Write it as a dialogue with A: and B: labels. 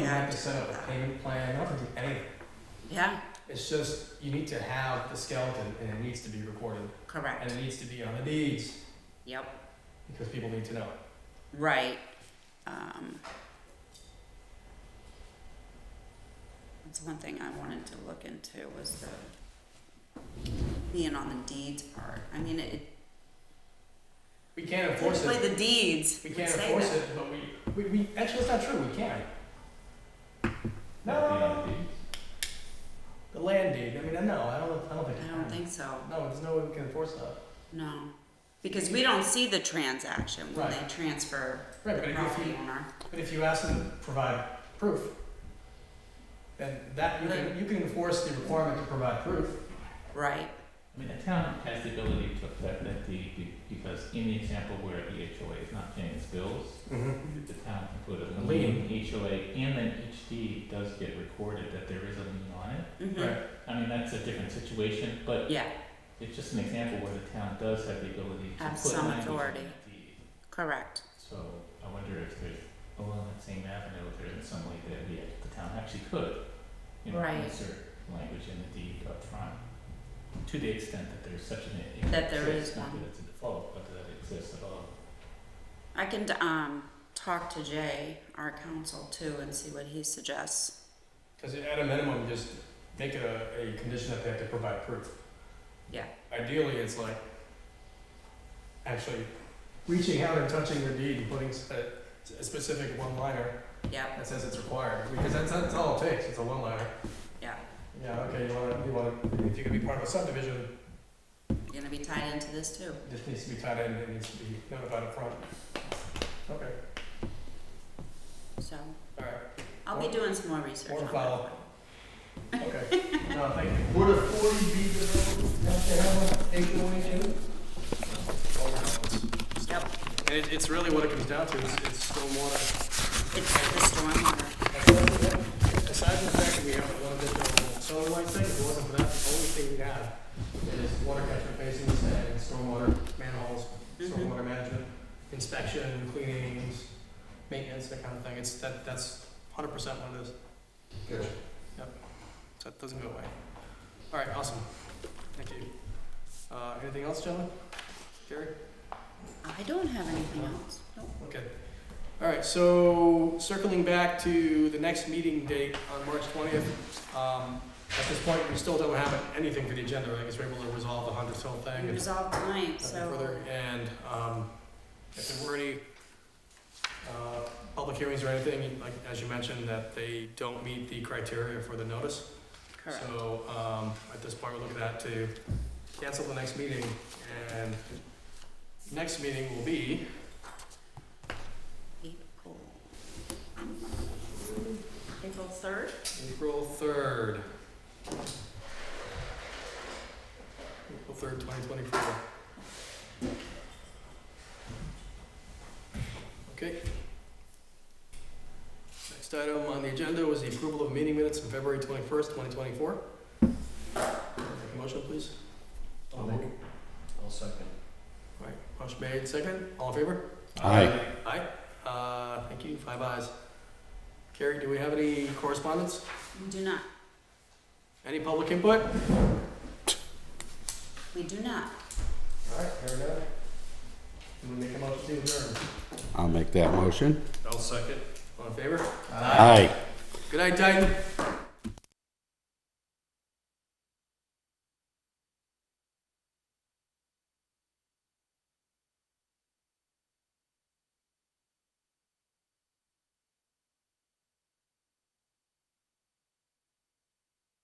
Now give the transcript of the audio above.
A: to set up a payment plan, you don't have to do anything.
B: Yeah,
A: It's just, you need to have the skeleton and it needs to be recorded and
B: correct.
A: it needs to be on the deeds
B: Yep,
A: because people need to know it.
B: right. Um, that's one thing I wanted to look into was the being on the deeds part. I mean, it,
A: We can't
B: it
A: enforce
B: play
A: it,
B: the deeds.
A: we
B: would
A: can't
B: say
A: enforce
B: that.
A: it, but we, we, we, actually, it's not true, we can. No,
C: Not
A: no, no,
C: being on
A: no.
C: the deeds.
A: the land deed, I mean, no, I don't, I don't think.
B: I don't think so.
A: No, there's no way we can enforce that.
B: No, because we don't see the transaction when they
A: Right.
B: transfer the
A: Right, but if you-
B: property owner.
A: But if you ask them to provide proof, then that, you can, you can enforce the requirement to provide proof.
B: Right,
C: I mean, the town has the ability to affect that deed be- because in the example where E the HOA is not paying its bills, the town can put a lien, HOA, and then each deed does get recorded that there is a lien on it.
B: mhm,
A: Right,
C: I mean, that's a different situation, but
B: yeah,
C: it's just an example where the town does have the ability to
B: Have
C: put
B: some
C: language E on
B: authority.
C: that deed.
B: correct.
C: So I wonder if there's, along that same avenue, if there isn't some way that we, the town actually could, you know,
B: Right.
C: insert language in the deed up front, To the extent that there's such an. it
B: That there
C: exists,
B: is
C: not
B: one.
C: that it's a default, but that it exists at all.
B: I can, um, talk to Jay, our counsel too, and see what he suggests.
A: cause at a minimum, just make it a, a condition that they have to provide proof.
B: Yeah.
A: Ideally, it's like, actually reaching out and touching the deed and putting s- a, a specific one-liner
B: Yep,
A: that says it's required, because that's, that's all it takes, it's a one-liner.
B: yeah,
A: Yeah, okay, you wanna, you wanna, if you're gonna be part of a subdivision,
B: gonna be tied into this too.
A: This needs to be tied in, it needs to be notified up front. Okay,
B: So
A: alright,
B: I'll be doing some more research
A: Or
B: on
A: follow.
B: that.
A: okay. No, thank you.
D: Would a forty be developed after having HOA too?
A: All right.
B: Yep,
A: And it, it's really what it comes down to, is, it's stormwater.
B: it's the stormwater,
A: Aside from the fact that we have a lot of different, so like thing, if it wasn't for that, the only thing we have is water catchment basins and stormwater manholes,
B: mhm,
A: stormwater management, inspection, cleanings, maintenance, that kind of thing, it's, that, that's hundred percent what it is,
D: Gotcha.
A: so it doesn't go away. Alright, awesome, thank you. Uh, anything else, gentlemen? Gary?
B: I don't have anything
A: Uh-huh.
B: else, nope.
A: Okay. All right, so circling back to the next meeting date on March 20th, um, at this point, we still don't have anything for the agenda, right? Because we're able to resolve the Hunter's Hill thing
B: We
A: and
B: resolved tonight,
A: nothing
B: so
A: further. And um, if there were any uh, public hearings or anything, like, as you mentioned, that they don't meet the criteria for the notice.
B: correct,
A: So um, at this point, we're looking at to cancel the next meeting, and next meeting will be
B: April. April third?
A: April third. April third, twenty twenty-four. Okay. Next item on the agenda was the approval of meeting minutes of February twenty-first, twenty twenty-four. Motion, please.
D: I'll make it. I'll second.
A: All right, motion made, second, all in favor? Aye. Uh, thank you, five ayes. Carrie, do we have any correspondence?
B: We do not,
A: Any public input?
B: we do not.
A: All right, here we go. I'm gonna make a motion to adjourn.
E: I'll make that motion.
A: I'll second. All in favor?
E: Aye.
A: Good night, Titan.